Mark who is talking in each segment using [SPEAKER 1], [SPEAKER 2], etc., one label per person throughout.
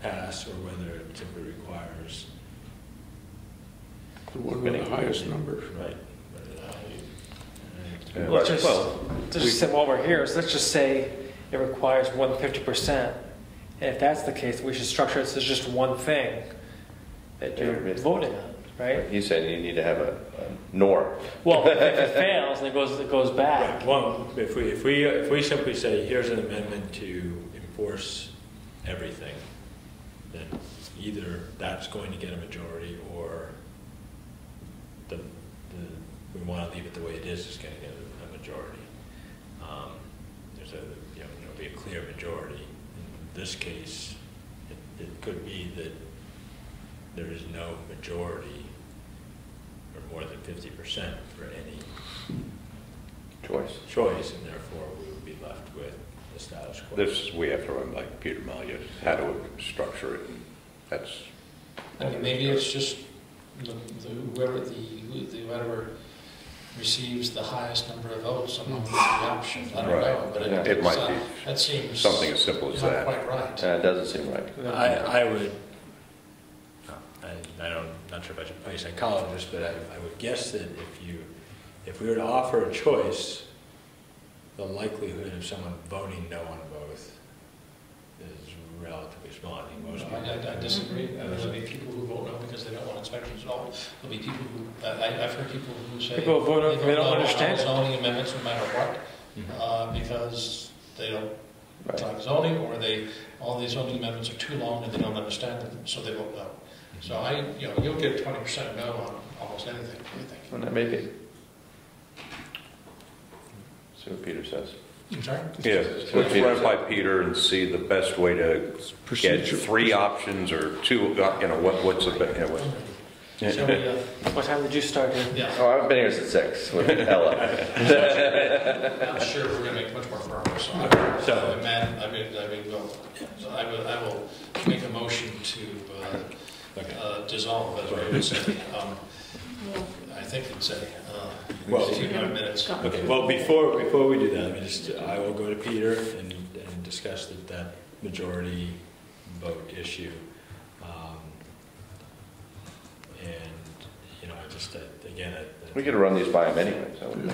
[SPEAKER 1] pass or whether it simply requires.
[SPEAKER 2] The one with the highest number.
[SPEAKER 1] Right.
[SPEAKER 3] Yeah.
[SPEAKER 4] Let's just,
[SPEAKER 3] Well,
[SPEAKER 4] let's just say while we're here, so let's just say it requires one fifty percent. And if that's the case, we should structure it so it's just one thing that you're
[SPEAKER 3] Yeah.
[SPEAKER 4] voting on, right?
[SPEAKER 3] He's saying you need to have a, a nor.
[SPEAKER 4] Well, if it fails and it goes, it goes back,
[SPEAKER 1] Well, if we, if we, if we simply say, here's an amendment to enforce everything, then either that's going to get a majority or the, the, we want to leave it the way it is, it's going to get a- a majority. Um, There's a, you know, there'll be a clear majority. In this case, it, it could be that there is no majority or more than fifty percent for any
[SPEAKER 3] Choice.
[SPEAKER 1] choice, and therefore we would be left with the status quo.
[SPEAKER 5] This, we have to run by Peter Malia, how to structure it, and that's.
[SPEAKER 6] I mean, maybe it's just the- the- whoever, the, the- whoever receives the highest number of votes among the three options, I don't
[SPEAKER 5] Right.
[SPEAKER 6] know, but it.
[SPEAKER 5] It might be
[SPEAKER 6] That seems.
[SPEAKER 5] something as simple as that.
[SPEAKER 6] Not quite right.
[SPEAKER 3] Uh, it doesn't seem right.
[SPEAKER 1] I, I would, I, I don't, not sure if I should play psychologist, but I, I would guess that if you, if we were to offer a choice, the likelihood of someone voting no on both is relatively small. I think most
[SPEAKER 6] No,
[SPEAKER 1] people.
[SPEAKER 6] I I disagree. Uh, There'll be people who vote no because they don't want inspections at all. There'll be people who, I, I- I've heard people who say.
[SPEAKER 4] People vote no 'cause they
[SPEAKER 6] vote
[SPEAKER 4] don't
[SPEAKER 6] no on
[SPEAKER 4] understand it.
[SPEAKER 6] Zoning amendments, no matter what,
[SPEAKER 5] Mm-hmm.
[SPEAKER 1] Mhm.
[SPEAKER 6] uh, because they don't
[SPEAKER 3] Right.
[SPEAKER 6] like zoning, or they, all these zoning amendments are too long and they don't understand them, so they vote no. So I, you know, you'll get twenty percent no on almost anything, I think.
[SPEAKER 3] Well, that may be. See what Peter says.
[SPEAKER 6] I'm sorry?
[SPEAKER 5] Yeah, let's run it by Peter and see the best way to get
[SPEAKER 2] Procedure.
[SPEAKER 5] three options or two, uh, you know, what, what's the, be- yeah, what-
[SPEAKER 6] Shall we, uh,
[SPEAKER 4] what time did you start here?
[SPEAKER 6] yeah,
[SPEAKER 3] Oh, I've been here since six with Ella.
[SPEAKER 6] I'm sure we're gonna make much more progress on it.
[SPEAKER 1] So-
[SPEAKER 6] So, man, I mean, I mean, well, so I will, I will make a motion to uh,
[SPEAKER 1] Okay.
[SPEAKER 6] uh, dissolve, as Ray was saying. Um, I think it's a,
[SPEAKER 1] Well-
[SPEAKER 6] uh, few minutes.
[SPEAKER 1] Okay, well, before, before we do that, let me just, I will go to Peter and, and discuss that, that majority vote issue. Um, And, you know, I just, uh, again, I.
[SPEAKER 3] We could run these by him anyway, so. it'd be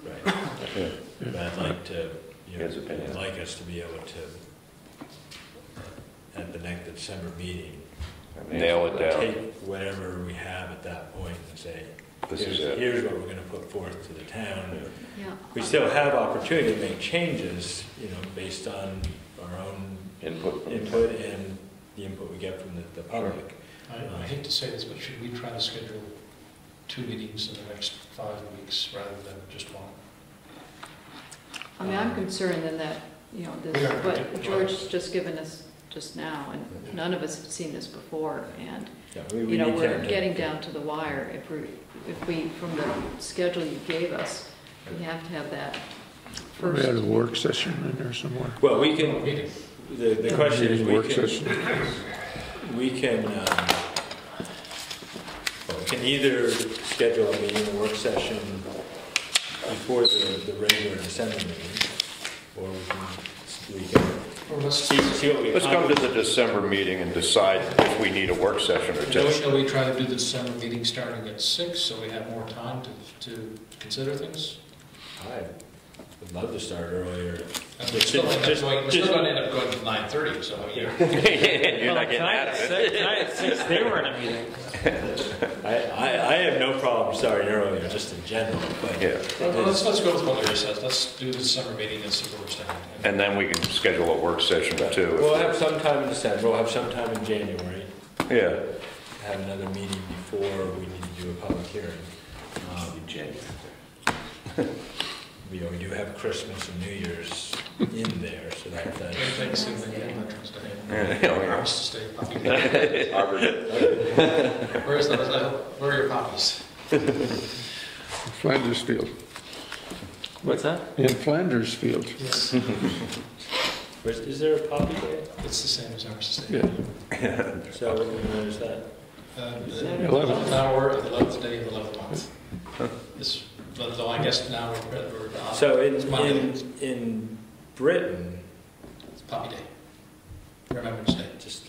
[SPEAKER 3] great.
[SPEAKER 1] Right. But I'd like to, you know,
[SPEAKER 3] His opinion.
[SPEAKER 1] I'd like us to be able to, uh, at the next December meeting,
[SPEAKER 3] I mean,
[SPEAKER 5] nail it down.
[SPEAKER 1] take whatever we have at that point and say,
[SPEAKER 5] This is
[SPEAKER 1] here's,
[SPEAKER 5] it.
[SPEAKER 1] here's what we're gonna put forth to the town.
[SPEAKER 7] Yeah.
[SPEAKER 1] We still have opportunity to make changes, you know, based on our own
[SPEAKER 3] Input. from-
[SPEAKER 1] input and the input we get from the, the public.
[SPEAKER 6] I I hate to say this, but should we try to schedule two meetings in the next five weeks rather than just one?
[SPEAKER 7] I mean, I'm concerned in that, you know, this,
[SPEAKER 6] Yeah.
[SPEAKER 7] what George's just given us just now, and none of us have seen this before, and,
[SPEAKER 1] Yeah, we- we
[SPEAKER 7] you know,
[SPEAKER 1] need to
[SPEAKER 7] we're
[SPEAKER 1] have the-
[SPEAKER 7] getting down to the wire. If we, if we, from the schedule you gave us, we have to have that
[SPEAKER 2] We had a
[SPEAKER 7] first.
[SPEAKER 2] work session in there somewhere.
[SPEAKER 1] Well, we can,
[SPEAKER 6] Meeting.
[SPEAKER 1] the, the question is, we
[SPEAKER 2] Work
[SPEAKER 1] can,
[SPEAKER 2] session.
[SPEAKER 1] we can, um, well, we can either schedule a meeting, a work session before the, the regular December meeting, or we can, we can
[SPEAKER 6] Or let's,
[SPEAKER 1] see, see what we.
[SPEAKER 5] Let's come to the December meeting and decide if we need a work session or
[SPEAKER 6] shall we-
[SPEAKER 5] just,
[SPEAKER 6] shall we try to do the December meeting starting at six, so we have more time to, to consider things?
[SPEAKER 1] I would love to start earlier.
[SPEAKER 6] And we're Uh, still gonna end up going, we're still gonna end up going to nine thirty, so, you know.
[SPEAKER 3] You're not getting
[SPEAKER 4] Tonight at
[SPEAKER 3] out of it.
[SPEAKER 4] six- Tonight at six, they were in a meeting.
[SPEAKER 1] I, I, I have no problem starting earlier, just in general, but.
[SPEAKER 5] yeah.
[SPEAKER 6] Well, Let's, let's go with what Larry says, let's do the December meeting and see where we're standing.
[SPEAKER 5] And then we can schedule a work session too.
[SPEAKER 1] We'll have some time in December, we'll have some time in January,
[SPEAKER 5] Yeah,
[SPEAKER 1] have another meeting before we need to do a public hearing. Um, We, we do have Christmas and New Year's in there, so that, that.
[SPEAKER 6] Thanks, and then Veterans Day. Armistice Day, nothing. Where is the, where are your copies?
[SPEAKER 2] Flanders Field.
[SPEAKER 4] What's that?
[SPEAKER 2] In Flanders Field,
[SPEAKER 6] Yes.
[SPEAKER 1] Is, is there a poppy day?
[SPEAKER 6] It's the same as Armistice Day.
[SPEAKER 2] yeah.
[SPEAKER 1] So when is that?
[SPEAKER 6] Uh,
[SPEAKER 7] Saturday.
[SPEAKER 6] Eleventh hour, of the eleventh day, of the eleventh month. This, but though I guess now we're, we're, uh,
[SPEAKER 1] So in,
[SPEAKER 6] It's Monday.
[SPEAKER 1] in, in Britain,
[SPEAKER 6] it's Poppy Day, Remembrance Day.
[SPEAKER 1] just